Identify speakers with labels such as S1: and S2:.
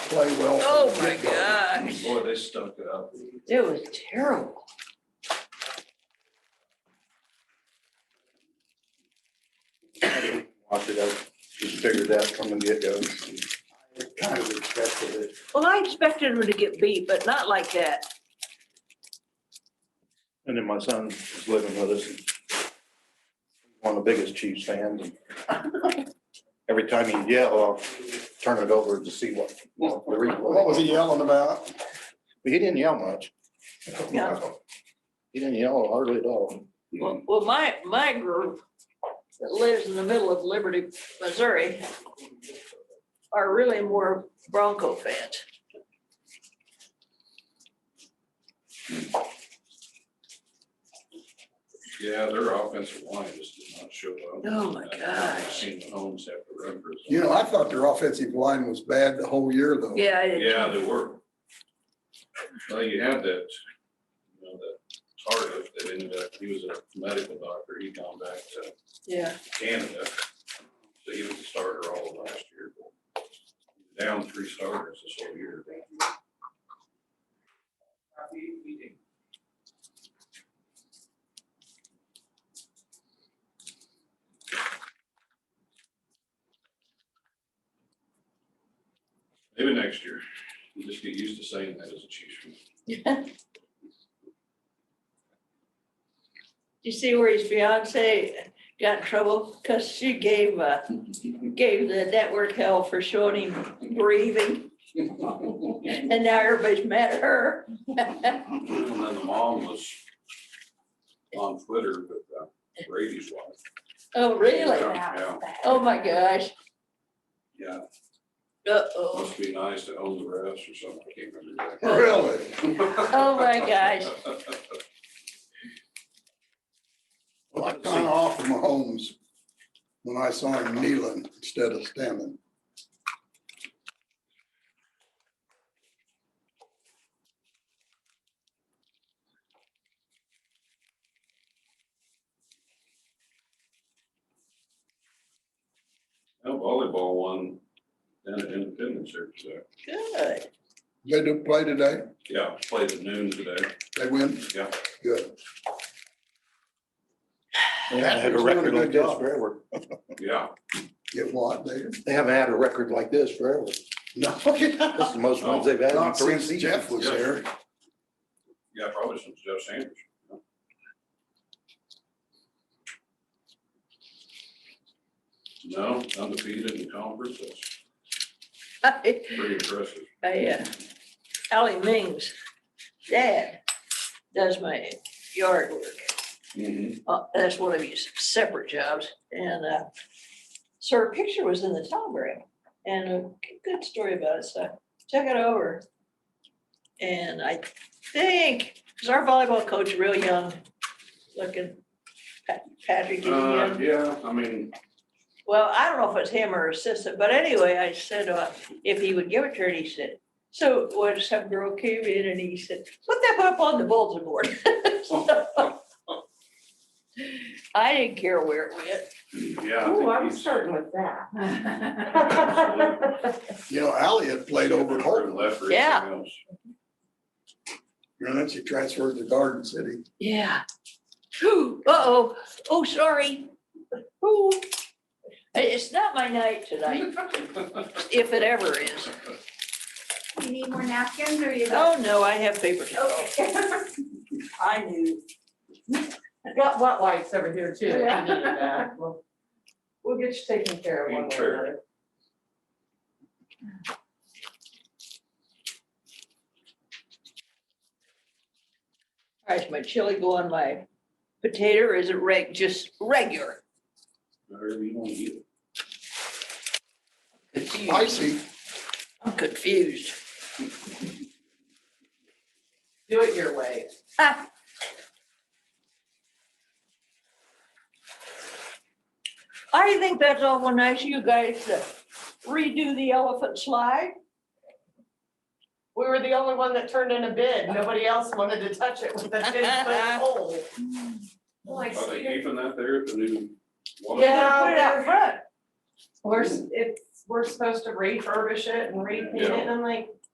S1: play well.
S2: Oh, my gosh.
S3: Boy, they stuck it up.
S2: It was terrible.
S1: Watch it, I just figured that from the get-go. I Kind of expected it.
S2: Well, I expected him to get beat, but not like that.
S1: And then my son is living with us. and One of the biggest Chiefs fans. and Every time he'd yell, I'll turn it over to see what, what the replay.
S4: What was he yelling about?
S1: But he didn't yell much.
S2: No.
S1: He didn't yell hardly at all.
S2: Well, well, my, my group that lives in the middle of Liberty, Missouri are really more Bronco fans.
S3: Yeah, their offensive line just did not show up.
S2: Oh, my
S3: I've
S2: gosh.
S3: Seen the homes have to run for.
S4: You know, I thought their offensive line was bad the whole year though.
S2: Yeah, I did.
S3: Yeah, they were. Well, you have that, you know, that target that ended up, he was a medical doctor, he gone back to
S2: yeah.
S3: Canada. So he was a starter all of last year. Down three starters this whole year. Maybe next year. You just get used to saying that as a Chiefs.
S2: You see where his fiance got in trouble? Cause she gave, uh, gave the network hell for showing him breathing. And now everybody's mad at her.
S3: And then the mom was on Twitter with uh, Brady's wife.
S2: Oh, really?
S3: Yeah,
S2: Oh, my gosh.
S3: yeah.
S2: Uh-oh.
S3: Must be nice to own the rest or something. I can't remember. exactly.
S4: Really?
S2: Oh, my gosh.
S4: Well, I kind of offered Mahomes when I saw him kneeling instead of standing.
S3: Now Volleyball won down at Independence here today.
S2: Good.
S4: They do play today?
S3: Yeah, played at noon today.
S4: They win?
S3: Yeah.
S4: Good.
S1: They haven't had a record like this forever.
S3: Yeah.
S4: Get what there?
S1: They haven't had a record like this forever.
S4: No.
S1: This is the most ones they've had in
S4: Not
S1: three
S4: since
S1: seasons.
S4: Oh, Jeff was
S3: Yeah.
S4: there.
S3: Yeah, probably since Joe Sanders. No, undefeated in conference. That's
S2: I,
S3: pretty impressive.
S2: I, uh, Ally Ming's dad does my yard work.
S4: Mm-hmm.
S2: Uh, That's one of his separate jobs. And, uh, so her picture was in the telegram and a g- good story about it. So check it over. And I think, is our volleyball coach real young looking? Pat- Patrick is young.
S3: Uh, yeah, I mean,
S2: Well, I don't know if it's him or assistant, but anyway, I said, uh, if he would give it to her, and he said, so when some girl came in and he said, put that up on the bulletin board. I didn't care where it went.
S3: yeah. I
S5: Oh,
S3: think
S5: I'm
S3: he's-
S5: starting with that.
S4: You know, Ally had played over at Holton,
S3: Left or
S2: Yeah.
S3: anything else.
S4: and then she transferred to Garden City.
S2: Yeah. Uh-oh, oh, sorry. Ooh. It's not my night tonight, if it ever is.
S5: You need more napkins or you?
S2: Oh, no, I have paper towels.
S5: Okay.
S2: I knew.
S6: Got wet wipes over here too, if you
S5: Yeah.
S6: need that. We'll we'll get you taken care of one way or
S3: Sure.
S6: another.
S2: All right, is my chili go on my potato or is it reg, just regular?
S3: Whatever you want to eat.
S4: Spicy.
S2: I'm confused.
S6: Do it your way.
S2: I think that's awful nice of you guys to redo the elephant slide.
S6: We were the only one that turned in a bid. Nobody else wanted to touch it with a ten foot pole.
S5: Well, I
S3: Are
S5: see
S3: Oh, they
S5: your-
S3: keeping that there at the new? water?
S6: Yeah.
S2: Put it out front.
S6: We're, s- it's, we're supposed to refurbish it and repaint it, and I'm like,